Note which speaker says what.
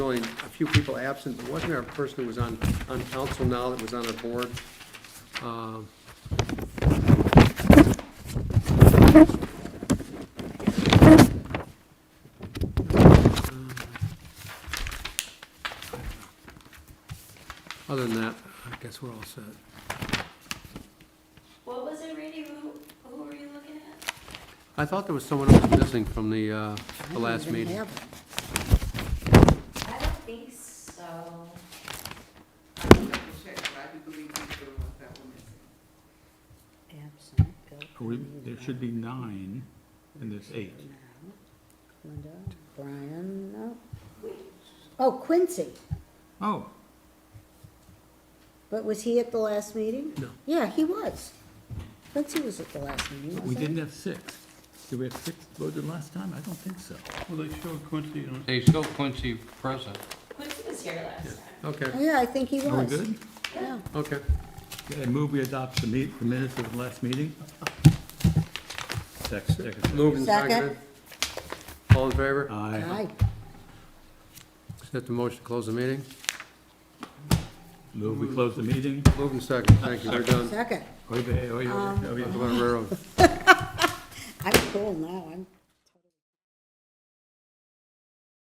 Speaker 1: only a few people absent, but wasn't there a person who was on, on council now that was on our board? Um, Other than that, I guess we're all set.
Speaker 2: What was it, Randy? Who, who were you looking at?
Speaker 1: I thought there was someone else missing from the, uh, the last meeting.
Speaker 2: I don't think so.
Speaker 3: I will double check, but I do believe he's the one that were missing.
Speaker 4: Absent, Bill.
Speaker 5: Are we, there should be nine, and there's eight.
Speaker 4: Linda, Brian, no. Oh, Quincy,
Speaker 5: Oh,
Speaker 4: but was he at the last meeting?
Speaker 1: No.
Speaker 4: Yeah, he was. Quincy was at the last meeting,
Speaker 5: we
Speaker 4: wasn't he?
Speaker 5: didn't have six. Did we have six voted last time? I don't think so.
Speaker 6: Well, they showed Quincy on
Speaker 7: They still Quincy present.
Speaker 2: Quincy was here last time.
Speaker 1: Okay,
Speaker 4: Oh, Yeah, I think he was.
Speaker 5: Are we good?
Speaker 4: Yeah.
Speaker 1: okay.
Speaker 5: I move we adopt the meet, the minutes of the last meeting. Second, second.
Speaker 1: Moved and
Speaker 4: Second.
Speaker 1: seconded. All in favor?
Speaker 5: I
Speaker 4: Aye.
Speaker 1: Accept the motion to close the meeting.
Speaker 5: move we close the meeting.
Speaker 1: Moved and seconded, thank you, we're done.
Speaker 4: Second.
Speaker 1: Um,
Speaker 5: Oy vey, oy vey, oy vey.
Speaker 1: We're on railroad.
Speaker 4: I'm cool now, I'm.